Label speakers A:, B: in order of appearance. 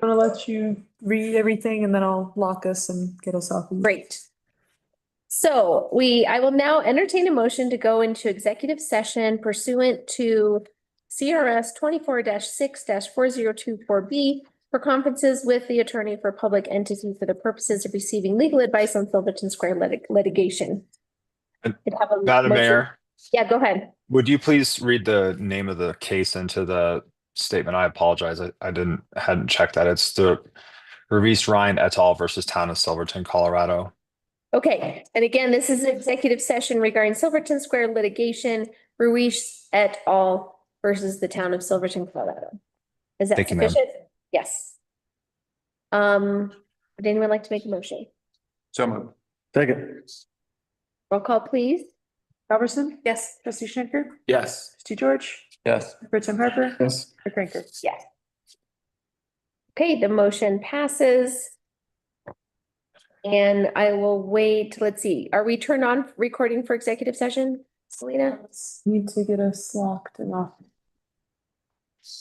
A: gonna let you read everything and then I'll lock us and get us off. of-
B: Great. So we, I will now entertain a motion to go into executive session pursuant to CRS twenty-four six four zero two four B for conferences with the attorney for public entity for the purposes of receiving legal advice on Silverton Square lit- litigation.
C: And-
B: Could have a
C: Madam
B: motion-
C: Mayor,
B: Yeah, go ahead.
C: would you please read the name of the case into the statement? I apologize. I, I didn't, hadn't checked that. It's the Revis Ryan et al. versus Town of Silverton, Colorado.
B: Okay, and again, this is an executive session regarding Silverton Square litigation, Ruiz et al. versus the town of Silverton, Colorado. Is that
C: Thank you, ma'am.
B: sufficient? Yes. Um, would anyone like to make a motion?
D: So moved.
E: Second.
B: Roll call, please.
A: Robertson?
B: Yes.
A: Trustee Schenker?
D: Yes.
A: Trustee George?
D: Yes.
A: Pro Tim Harper?
E: Yes.
A: Mayor Cranker?
B: Yes. Okay, the motion passes. And I will wait, let's see, are we turned on recording for executive session, Selena?
A: Need to get us locked and off.